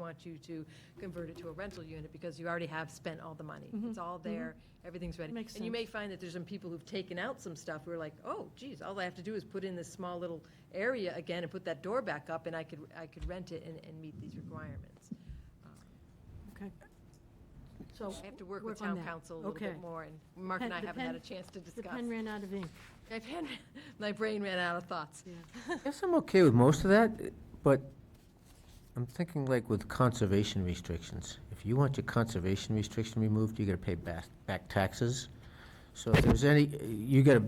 want you to convert it to a rental unit because you already have spent all the money. It's all there, everything's ready. Mm-hmm. Makes And you may find that there's some people who've taken out some stuff who are like, oh, geez, all I have to do is put in this small little area again and put that door back up and I could, I could rent it and, and meet these requirements. So I have to work with Oh, Work on town that. council a little bit Okay. more and Mark and Pen- I the haven't had a pen- chance to the discuss. pen ran out of ink. My pen, my brain ran out of thoughts. Guess I'm okay with most of that, but I'm thinking like with conservation restrictions. If you want your conservation restriction removed, you gotta pay back, back taxes. So if there's any, you gotta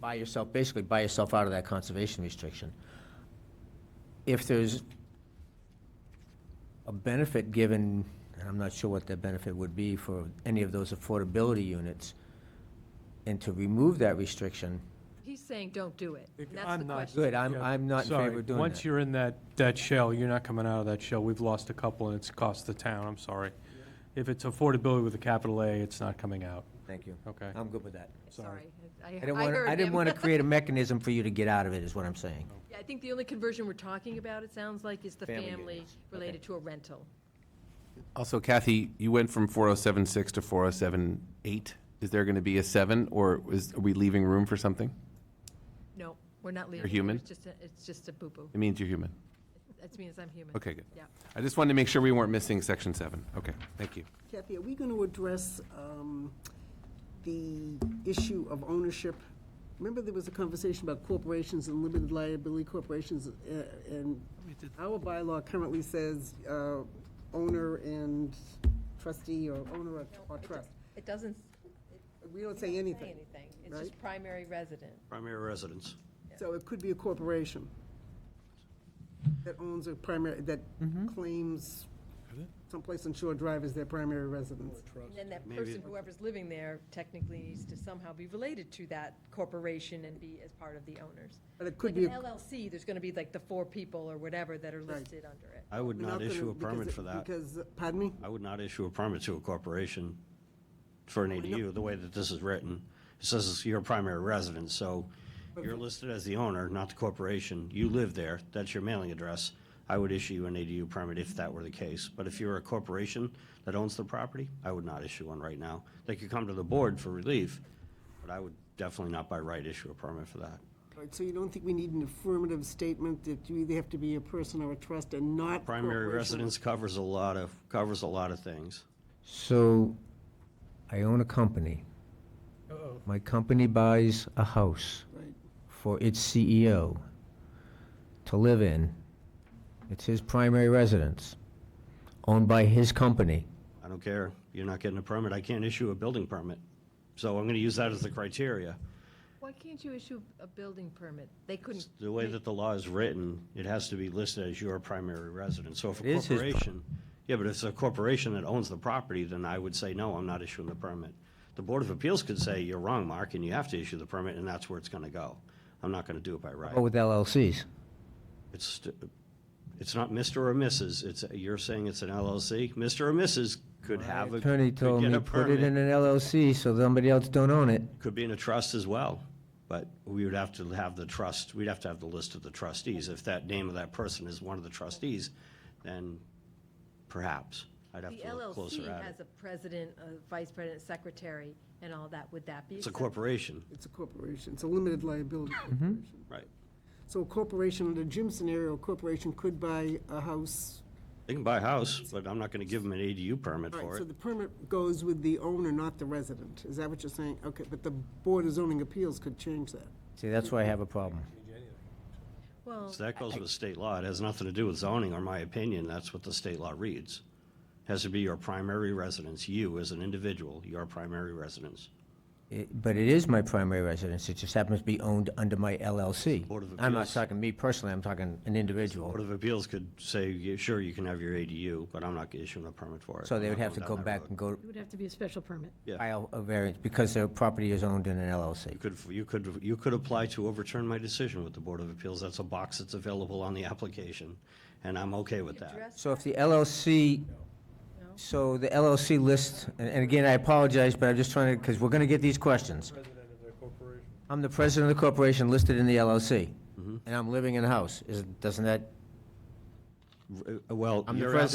buy yourself, basically buy yourself out of that conservation restriction. If there's a benefit given, and I'm not sure what that benefit would be for any of those affordability units, and to remove that restriction, He's saying, don't do it. If- And that's I'm the not question. good, I'm, Yeah, I'm not in sorry. favor of doing that. Once you're in that, that shell, you're not coming out of that shell. We've lost a couple, and it's cost the town, I'm sorry. If it's affordability with a capital A, it's not coming out, Thank you. okay? I'm good with that. Sorry. I I didn't want, heard I didn't him. want to create a mechanism for you to get out of it, is what I'm saying. Yeah, I think the only conversion we're talking about, it sounds like, is the Family family units. Okay. related to a rental. Also, Kathy, you went from 4076 to 4078. Is there going to be a seven, or is, are we leaving room for something? No, we're not leaving. human? It's just, a- it's just a boo-boo. It means you're human. That means I'm human. Okay, good. Yeah. I just wanted to make sure we weren't missing section seven. Okay, thank you. Kathy, are we going to address um, the issue of ownership? Remember, there was a conversation about corporations and limited liability corporations, uh, and our bylaw currently says uh, owner and trustee, or owner or- or It does- trust. It doesn't We don't say say anything. anything. It's just right? primary resident. primary residence. So it could be a corporation that owns a primary, that claims someplace on Shore Drive as their primary residence. And then that person, whoever's living there, technically needs to somehow be related to that corporation and be as part of the owners. But it Like could be, an a- LLC, there's going to be like the four people or whatever that are Right. listed under it. I would we're not not gonna- issue a because permit it- for that. Because, pardon me? I would not issue a permit to a corporation for an ADU, the way that this is written. It says it's your primary residence, so you're listed as the owner, not the corporation. You live there, that's your mailing address. I would issue you an ADU permit if that were the case. But if you're a corporation that owns the property, I would not issue one right now. They could come to the board for relief, but I would definitely not by right issue a permit for that. All right, so you don't think we need an affirmative statement that you either have to be a person or a trust and not Primary corporation? residence covers a lot of, covers a lot of things. So, I own a company. My company buys a house Right. for its CEO to live in. It's his primary residence, owned by his company. I don't care. You're not getting a permit. I can't issue a building permit. So I'm going to use that as the criteria. Why can't you issue a building permit? They couldn't. The way that the law is written, it has to be listed as your primary residence. So if It a is his pro- corporation, yeah, but if it's a corporation that owns the property, then I would say, no, I'm not issuing the permit. The Board of Appeals could say, you're wrong, Mark, and you have to issue the permit, and that's where it's going to go. I'm not going to do it by right. Or Oh, with LLCs. It's, st- it's not Mr. or Mrs., it's, you're saying it's an LLC? Mr. or Mrs. could have a, Attorney could told get me, a put it in permit. an LLC so somebody else don't own it. Could be in a trust as well, but we would have to have the trust, we'd have to have the list of the trustees. If that name of that person is one of the trustees, then perhaps. I'd have The to look closer LLC at has it. a president, a vice president, secretary, and all that. Would that be? It's a acceptable? corporation, It's a corporation, it's a limited liability corporation. right. So a corporation, under Jim's scenario, a corporation could buy a house. They can buy a house, but I'm not going to give them an ADU permit All right, for so it. the permit goes with the owner, not the resident, is that what you're saying? Okay, but the Board of Zoning Appeals could change that. See, that's why I have a problem. Well, So that goes with state law. It has nothing to do with zoning, or my opinion, that's what the state law reads. Has to be your primary residence, you as an individual, your primary residence. It- But it is my primary residence, it just happens to be owned under my LLC. Board of I'm not Appeals. talking me personally, I'm talking an individual. Board of Appeals could say, yeah, sure, you can have your ADU, but I'm not issuing a permit for it. So I'm they would not have to going go down that back road. and go It would have to be a special permit. Yeah. file a variance, because their property is owned in an LLC. You could, you could, you could apply to overturn my decision with the Board of Appeals. That's a box that's available on the application, and I'm okay with that. address- So if the LLC, No. so the LLC list, and- and again, I apologize, but I'm just trying to, because we're going to get these questions. I'm the president of the corporation listed in the Mm-hmm. LLC, and I'm living in a house, is, doesn't that Uh, Well, I'm the you're president.